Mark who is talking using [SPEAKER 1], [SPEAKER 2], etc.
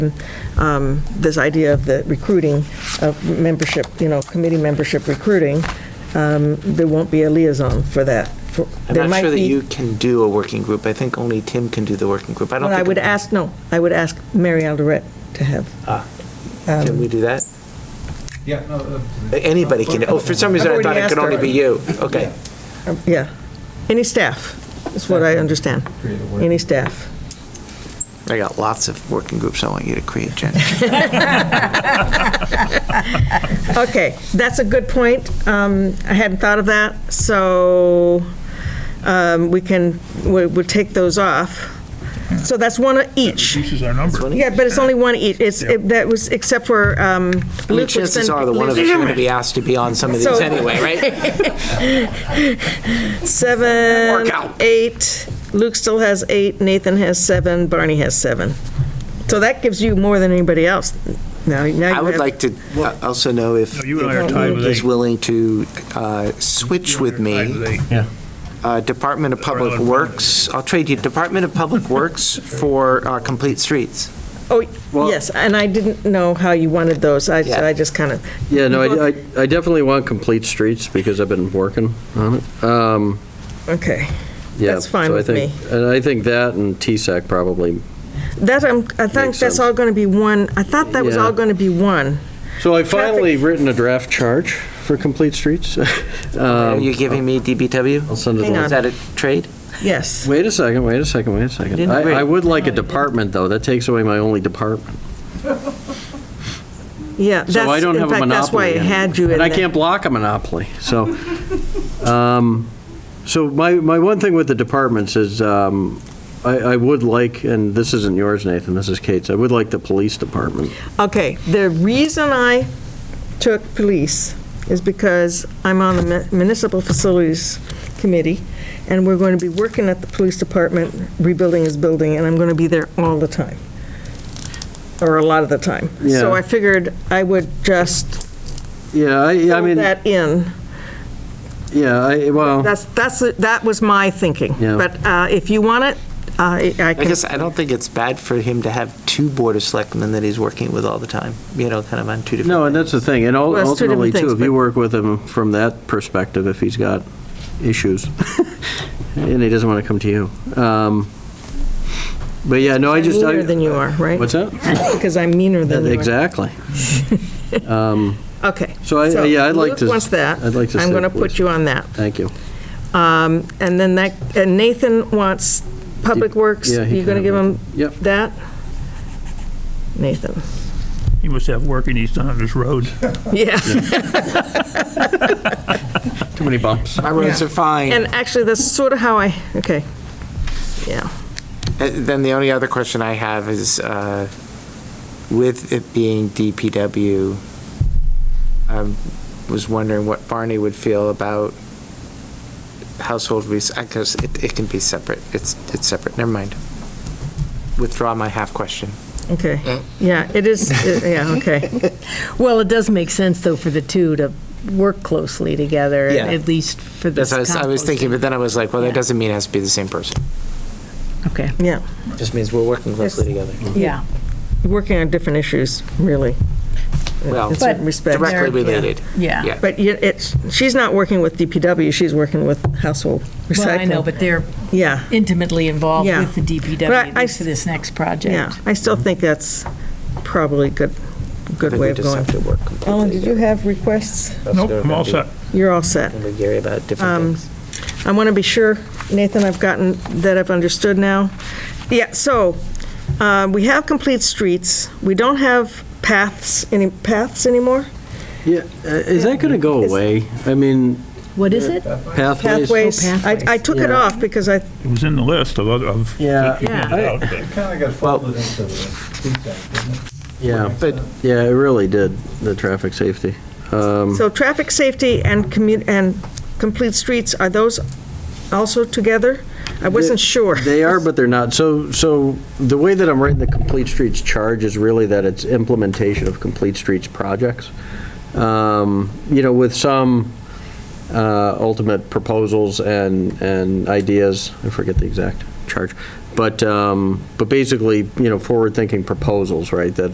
[SPEAKER 1] um, this idea of the recruiting of membership, you know, committee membership recruiting, um, there won't be a liaison for that. For- there
[SPEAKER 2] I'm not
[SPEAKER 1] might
[SPEAKER 2] sure that
[SPEAKER 1] be-
[SPEAKER 2] you can do a working group. I think only Tim can do the working group. I don't
[SPEAKER 1] Well,
[SPEAKER 2] think.
[SPEAKER 1] I would ask, no, I would ask Mary Alderette to have. um,
[SPEAKER 2] Ah, Can we do that?
[SPEAKER 3] Yeah, no, uh,
[SPEAKER 2] Anybody can, oh, for some reason I
[SPEAKER 1] already
[SPEAKER 2] thought it
[SPEAKER 1] asked
[SPEAKER 2] could only
[SPEAKER 1] her.
[SPEAKER 2] be you. Okay.
[SPEAKER 1] uh, Yeah, any staff, is what I understand.
[SPEAKER 3] Create a work-
[SPEAKER 1] Any staff.
[SPEAKER 2] I got lots of working groups I want you to create, Jen.
[SPEAKER 1] Okay, that's a good point. Um, I hadn't thought of that, so um, we can, we- we'll take those off. So that's one each.
[SPEAKER 4] This is our number.
[SPEAKER 1] Yeah, but it's only one each. It's, it- that was, except for um,
[SPEAKER 2] I mean,
[SPEAKER 1] Luke was
[SPEAKER 2] chances
[SPEAKER 1] sent-
[SPEAKER 2] are the one of us are going to be asked to be on some of these
[SPEAKER 1] So-
[SPEAKER 2] anyway, right?
[SPEAKER 1] Seven,
[SPEAKER 2] Work out.
[SPEAKER 1] eight, Luke still has eight, Nathan has seven, Barney has seven. So that gives you more than anybody else. Now, now you
[SPEAKER 2] I would
[SPEAKER 1] have-
[SPEAKER 2] like to uh, also know if
[SPEAKER 4] No, you and I are tied with
[SPEAKER 2] if is
[SPEAKER 4] eight.
[SPEAKER 2] willing to uh, switch with me. Uh, Department of Public
[SPEAKER 4] Department of-
[SPEAKER 2] Works, I'll trade you Department of Public Works for uh, Complete Streets.
[SPEAKER 1] Oh,
[SPEAKER 5] Well-
[SPEAKER 1] yes, and I didn't know how you wanted those. I, so I just kind of,
[SPEAKER 5] Yeah, no, I, I- I definitely want complete streets because I've been working on it. Um,
[SPEAKER 1] okay.
[SPEAKER 5] yeah,
[SPEAKER 1] That's fine
[SPEAKER 5] so I
[SPEAKER 1] with
[SPEAKER 5] think- And I think that and TSAC probably.
[SPEAKER 1] That, I'm- I think that's
[SPEAKER 5] Makes sense.
[SPEAKER 1] all going to be one, I thought that was
[SPEAKER 5] Yeah.
[SPEAKER 1] all going to be one.
[SPEAKER 5] So I finally written a draft charge for complete streets. Um,
[SPEAKER 2] Are you giving me DBW?
[SPEAKER 5] I'll send
[SPEAKER 1] Um,
[SPEAKER 5] it
[SPEAKER 1] Hang
[SPEAKER 5] along.
[SPEAKER 1] on.
[SPEAKER 2] Is that a trade?
[SPEAKER 1] Yes.
[SPEAKER 5] Wait a second, wait a second, wait a second.
[SPEAKER 2] Didn't
[SPEAKER 5] I,
[SPEAKER 2] agree.
[SPEAKER 5] I would like a department, though. That takes away my only department.
[SPEAKER 1] Yeah.
[SPEAKER 5] So I
[SPEAKER 1] that's-
[SPEAKER 5] don't have a monopoly.
[SPEAKER 1] In fact, that's why I
[SPEAKER 5] anymore.
[SPEAKER 1] had you in
[SPEAKER 5] And I
[SPEAKER 1] there.
[SPEAKER 5] can't block a monopoly, so. um, So my, my one thing with the departments is, um, I, I would like, and this isn't yours, Nathan, this is Kate's, I would like the police department.
[SPEAKER 1] Okay, the reason I took police is because I'm on the mu- municipal facilities committee, and we're going to be working at the police department, rebuilding his building, and I'm going to be there all the time, or a lot of the time. So
[SPEAKER 5] Yeah.
[SPEAKER 1] I figured I would just
[SPEAKER 5] Yeah, I, I
[SPEAKER 1] fill
[SPEAKER 5] mean,
[SPEAKER 1] that in.
[SPEAKER 5] yeah, I, well,
[SPEAKER 1] That's, that's, that was my thinking.
[SPEAKER 5] Yeah.
[SPEAKER 1] But uh, if you want it, uh, I I
[SPEAKER 2] I
[SPEAKER 1] can,
[SPEAKER 2] guess I don't think it's bad for him to have two Board of Selectmen that he's working with all the time, you know, kind of on two different.
[SPEAKER 5] no, and that's the thing, and ul-
[SPEAKER 1] Well, it's two different
[SPEAKER 5] ultimately, too,
[SPEAKER 1] things,
[SPEAKER 5] if you
[SPEAKER 1] but-
[SPEAKER 5] work with him from that perspective, if he's got issues, and he doesn't want to come to you. Um, But yeah, no, I
[SPEAKER 1] I'm
[SPEAKER 5] just. I-
[SPEAKER 1] meaner than you are, right?
[SPEAKER 5] What's that?
[SPEAKER 1] Because I'm meaner than you are.
[SPEAKER 5] Exactly.
[SPEAKER 1] Okay.
[SPEAKER 5] So I- yeah, I'd like to-
[SPEAKER 1] Luke wants that.
[SPEAKER 5] I'd like to
[SPEAKER 1] I'm
[SPEAKER 5] say
[SPEAKER 1] going to put
[SPEAKER 5] please.
[SPEAKER 1] you on that.
[SPEAKER 5] Thank you.
[SPEAKER 1] Um, And then that, and Nathan wants Public Works.
[SPEAKER 5] Yeah, he
[SPEAKER 1] You going to
[SPEAKER 5] can
[SPEAKER 1] give him
[SPEAKER 5] have it. Yep.
[SPEAKER 1] that? Nathan.
[SPEAKER 4] He must have work and he's not on his road.
[SPEAKER 1] Yeah.
[SPEAKER 5] Too many bumps.
[SPEAKER 2] My roads are fine.
[SPEAKER 1] And actually, that's sort of how I, okay. Yeah.
[SPEAKER 2] Uh, Then the only other question I have is, uh, with it being DPW, I um, was wondering what Barney would feel about household rec, I guess it, it can be separate. It's, it's separate. Never mind. Withdraw my half question.
[SPEAKER 1] Okay. Yeah, it is, it- yeah, okay.
[SPEAKER 6] Well, it does make sense, though, for the two to work closely together,
[SPEAKER 2] Yeah.
[SPEAKER 6] at least for this
[SPEAKER 2] That's what I was, I was thinking, but then I was like, well, that
[SPEAKER 6] Yeah.
[SPEAKER 2] doesn't mean it has to be the same person.
[SPEAKER 6] composting. Okay,
[SPEAKER 1] Yeah.
[SPEAKER 2] Just means we're working closely together.
[SPEAKER 6] yeah.
[SPEAKER 1] Working on different issues, really,
[SPEAKER 2] Well,
[SPEAKER 1] in certain
[SPEAKER 6] But
[SPEAKER 1] respects.
[SPEAKER 2] directly
[SPEAKER 6] They're- yeah.
[SPEAKER 2] related.
[SPEAKER 6] Yeah.
[SPEAKER 2] Yeah.
[SPEAKER 1] But you- it's, she's not working with DPW, she's working with household recycling.
[SPEAKER 6] Well, I know, but they're
[SPEAKER 1] Yeah,
[SPEAKER 6] intimately involved
[SPEAKER 1] Yeah.
[SPEAKER 6] with the DPW
[SPEAKER 1] But I-
[SPEAKER 6] at least for this next project.
[SPEAKER 1] yeah. I still think that's probably a good, good way of going.
[SPEAKER 2] to work.
[SPEAKER 1] Ellen, did you have requests?
[SPEAKER 4] Nope, I'm all set.
[SPEAKER 1] You're all set.
[SPEAKER 2] With Gary about
[SPEAKER 1] Um,
[SPEAKER 2] different things.
[SPEAKER 1] I want to be sure, Nathan, I've gotten, that I've understood now. Yeah, so, uh, we have complete streets, we don't have paths, any paths anymore?
[SPEAKER 5] Yeah, uh, is that going to go
[SPEAKER 1] Is-
[SPEAKER 5] away? I mean,
[SPEAKER 6] What is it?
[SPEAKER 5] pathways?
[SPEAKER 1] Pathways? I I took it
[SPEAKER 5] Yeah.
[SPEAKER 1] off because I,
[SPEAKER 4] It was in the list of, other- of.
[SPEAKER 5] Yeah.
[SPEAKER 4] that you handed
[SPEAKER 5] Yeah.
[SPEAKER 4] out, but-
[SPEAKER 3] It kind of got folded into the feedback, didn't it?
[SPEAKER 5] Yeah,
[SPEAKER 2] But
[SPEAKER 5] yeah, it really did, the traffic safety. Um,
[SPEAKER 1] so traffic safety and commu, and complete streets, are those also together? I wasn't sure.
[SPEAKER 5] They are, but they're not. So, so the way that I'm writing the Complete Streets charge is really that it's implementation of Complete Streets projects. Um, You know, with some uh, ultimate proposals and, and ideas, I forget the exact charge, But, um, but basically, you know, forward-thinking proposals, right, that